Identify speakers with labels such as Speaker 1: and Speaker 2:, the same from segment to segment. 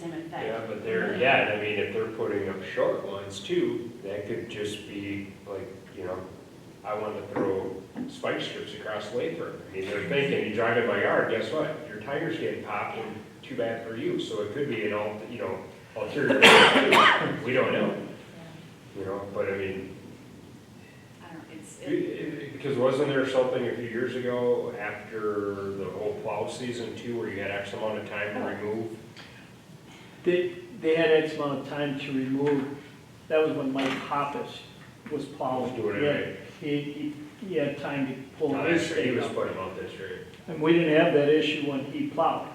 Speaker 1: contract, but they're, yeah, I mean, if they're putting up short ones too, that could just be like, you know, I wanna throw spike strips across Lathrop. I mean, they're thinking, you drive in my yard, guess what? Your tires get popped and too bad for you, so it could be an al, you know, ulterior, motive. we don't know, you know, but I mean,
Speaker 2: I don't, it's,
Speaker 1: it-
Speaker 2: it-
Speaker 1: it- Because wasn't there something a few years ago after the whole plow season too, where you had X amount of time to remove?
Speaker 3: They, they had X amount of time to remove, that was when Mike Hoppus was plowing.
Speaker 1: Was doing it
Speaker 3: He had-
Speaker 1: right.
Speaker 3: He, he, he had time to pull
Speaker 1: Now,
Speaker 3: his
Speaker 1: that's- Uh, He
Speaker 3: stake
Speaker 1: was
Speaker 3: up.
Speaker 1: putting out this year.
Speaker 3: And we didn't have that issue when he plowed.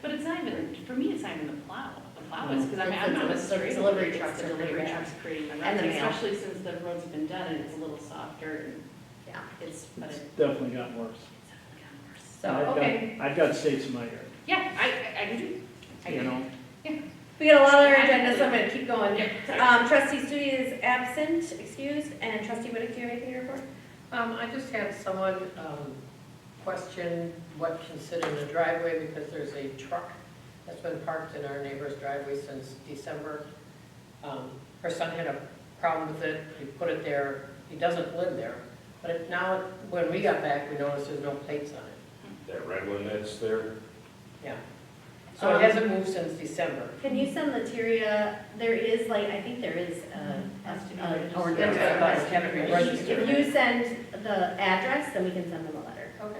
Speaker 2: but it's not even, for me, it's not even the plow. The plow is, because I mean, I'm
Speaker 4: It's-
Speaker 2: not a
Speaker 4: it's-
Speaker 2: straight
Speaker 4: it's
Speaker 2: delivery
Speaker 4: delivery
Speaker 2: truck,
Speaker 4: trucks
Speaker 2: the
Speaker 4: are pretty
Speaker 2: delivery
Speaker 4: bad.
Speaker 2: trucks creating the
Speaker 4: And
Speaker 2: ruts,
Speaker 4: the mail.
Speaker 2: especially since the road's been done and it's a little softer and
Speaker 4: Yeah,
Speaker 2: it's, but
Speaker 3: It's
Speaker 2: it's
Speaker 3: definitely gotten worse.
Speaker 2: definitely gotten worse.
Speaker 4: so,
Speaker 3: I've got-
Speaker 4: okay,
Speaker 3: I've got stakes in my yard,
Speaker 2: Yeah, I, I- I can do, I
Speaker 3: you
Speaker 2: can,
Speaker 3: know?
Speaker 4: we got a lot on our agenda, so I'm gonna keep going. Um, trustee Studi is absent, excused, and trustee Whitaker, do you have anything to report?
Speaker 5: Um, I just had someone, um, question what considered a driveway because there's a truck that's been parked in our neighbor's driveway since December. Um, her son had a problem with it, he put it there, he doesn't live there. But it- now, when we got back, we noticed there's no plates on it,
Speaker 1: That red one that's there,
Speaker 5: yeah. So
Speaker 4: Um,
Speaker 5: it hasn't moved since December.
Speaker 4: Can you send Latiria, there is like, I think there is uh, a,
Speaker 2: Has to be
Speaker 4: a-
Speaker 2: registered.
Speaker 4: a ordinance.
Speaker 5: That's what I thought, it had to be
Speaker 4: If
Speaker 5: registered.
Speaker 4: you send the address, then we can send them a letter.
Speaker 5: Okay.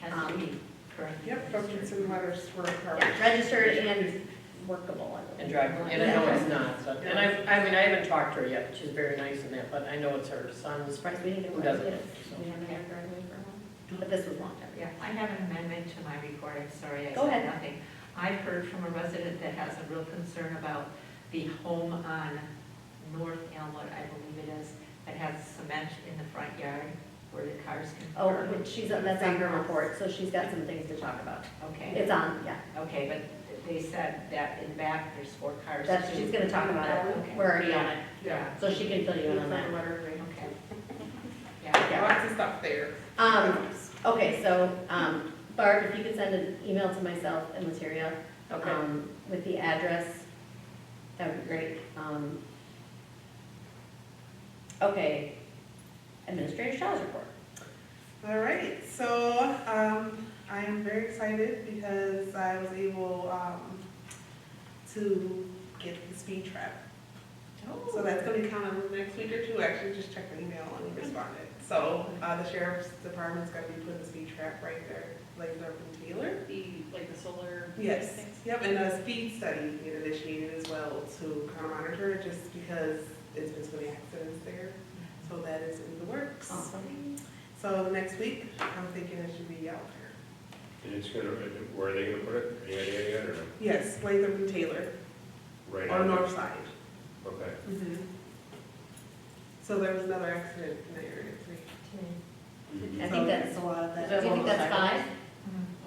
Speaker 2: has to be correct.
Speaker 6: Yep, documents and letters were part.
Speaker 4: Yeah, registered and workable. I
Speaker 5: And
Speaker 4: believe.
Speaker 5: drive, and I know it's not, so, and I, I mean, I haven't talked to her yet, she's very nice and that, but I know it's her
Speaker 4: I'm
Speaker 5: son's.
Speaker 4: surprised we didn't get
Speaker 5: Who
Speaker 4: one.
Speaker 5: doesn't?
Speaker 4: We haven't had a driveway for a while, but this was a long time ago.
Speaker 7: Yeah, I have an amendment to my report, I'm sorry, I
Speaker 4: Go
Speaker 7: said
Speaker 4: ahead.
Speaker 7: nothing. I've heard from a resident that has a real concern about the home on North Elmwood, I believe it is, that has cement in the front yard where the cars can
Speaker 4: Oh,
Speaker 7: park.
Speaker 4: but she's, that's on her report, so she's got some things to talk about.
Speaker 7: Okay,
Speaker 4: It's on, yeah,
Speaker 7: okay, but they said that in back, there's four cars.
Speaker 4: that's, she's gonna talk about it, we're already on it,
Speaker 7: Yeah,
Speaker 4: so she can fill you in on that.
Speaker 7: okay. Yeah,
Speaker 4: Yeah.
Speaker 6: Lots of stuff there.
Speaker 4: Um, okay, so, um, Barb, if you could send an email to myself and Lataria,
Speaker 5: Okay.
Speaker 4: um, with the address, that would be great, um. Okay, Administrator Shaw's report.
Speaker 6: All right, so, um, I am very excited because I was able, um, to get the speed trap. So that's gonna be coming next week or two, actually, just checked the email and responded. So, uh, the sheriff's department's gonna be putting the speed trap right there, like Durban Taylor.
Speaker 2: The, like the solar.
Speaker 6: Yes,
Speaker 2: things.
Speaker 6: yep, and a speed study get initiated as well to kind of monitor it, just because it's been so many accidents there. So that is in the works.
Speaker 4: Awesome.
Speaker 6: So next week, I'm thinking it should be out there.
Speaker 1: and it's gonna, where are they gonna put it? Any idea yet, or no?
Speaker 6: Yes, Lathrop and Taylor,
Speaker 1: right
Speaker 6: on
Speaker 1: on?
Speaker 6: north side.
Speaker 1: Okay.
Speaker 4: Mm-hmm.
Speaker 6: So there was another accident in that area too.
Speaker 4: I
Speaker 6: So
Speaker 4: think that's,
Speaker 6: a lot of
Speaker 5: Is
Speaker 4: do
Speaker 5: that
Speaker 4: you think that's five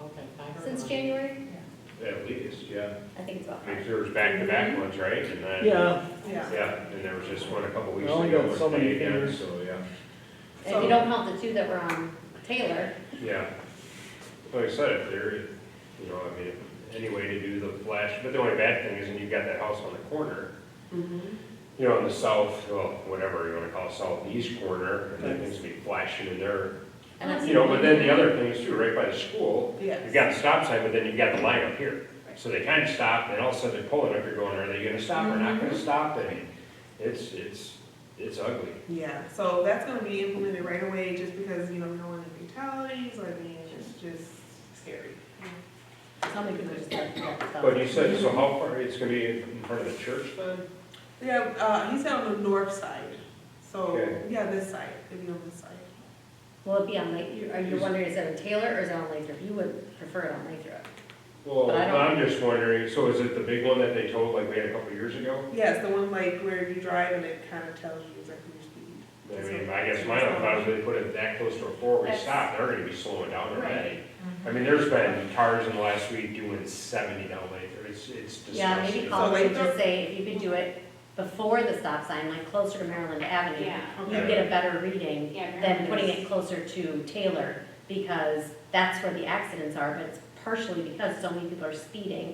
Speaker 5: Okay. I heard
Speaker 4: since
Speaker 5: one.
Speaker 4: January?
Speaker 1: At least, yeah.
Speaker 4: I think it's about
Speaker 1: I mean,
Speaker 4: five.
Speaker 1: 'cause there was back-to-back ones, right? And then,
Speaker 3: Yeah,
Speaker 6: Yeah.
Speaker 1: yeah, and there was just one a couple weeks
Speaker 3: I only
Speaker 1: ago
Speaker 3: got
Speaker 1: with
Speaker 3: so many
Speaker 1: May again,
Speaker 3: fingers.
Speaker 1: so, yeah.
Speaker 4: And if you don't count the two that were on Taylor,
Speaker 1: Yeah. Like I said, if there, you know, I mean, any way to do the flash, but the only bad thing is when you've got that house on the corner, you know, in the south, well, whatever you wanna call it, southeast corner, and then things will be flashing in there.
Speaker 4: and that's.
Speaker 1: You know, but then the other thing is too, right by the school, you've
Speaker 6: Yes.
Speaker 1: got the stop sign, but then you've got the line up here. So they kinda stop, and all of a sudden they're pulling up, you're going, are they gonna stop or not
Speaker 4: Mm-hmm.
Speaker 1: gonna stop? And it's, it's, it's ugly.
Speaker 6: Yeah, so that's gonna be implemented right away, just because, you know, no one in fatalities, or, I mean, it's just scary.
Speaker 4: How many people just left that stuff?
Speaker 1: But you said, so how far, it's gonna be in front of the church then?
Speaker 6: Yeah, uh, he's on the north side, so,
Speaker 1: Okay.
Speaker 6: yeah, this side, if you're on this side.
Speaker 4: Will it be on Lake, you- are you wondering, is it on Taylor or is it on Lathrop? You would prefer it on Lathrop.
Speaker 1: Well,
Speaker 4: But I don't-
Speaker 1: I'm just wondering, so is it the big one that they told like we had a couple years ago?
Speaker 6: Yes, the one like where you drive and it kind of tells you exactly your speed.
Speaker 1: I mean, I guess my own thought is they put it that close to a four-way stop, they're gonna be slowing down already.
Speaker 4: Mm-hmm.
Speaker 1: I mean, there's been cars in the last week doing seventy down Lathrop, it's, it's disgusting.
Speaker 4: Yeah, maybe
Speaker 6: call-
Speaker 4: call it and
Speaker 6: Lathrop?
Speaker 4: just say, if you could do it before the stop sign, like closer to Maryland Avenue,
Speaker 2: Yeah.
Speaker 4: you get a better reading
Speaker 2: Yeah,
Speaker 4: than putting
Speaker 2: Maryland is-
Speaker 4: it closer to Taylor, because that's where the accidents are, but it's partially because so many people are speeding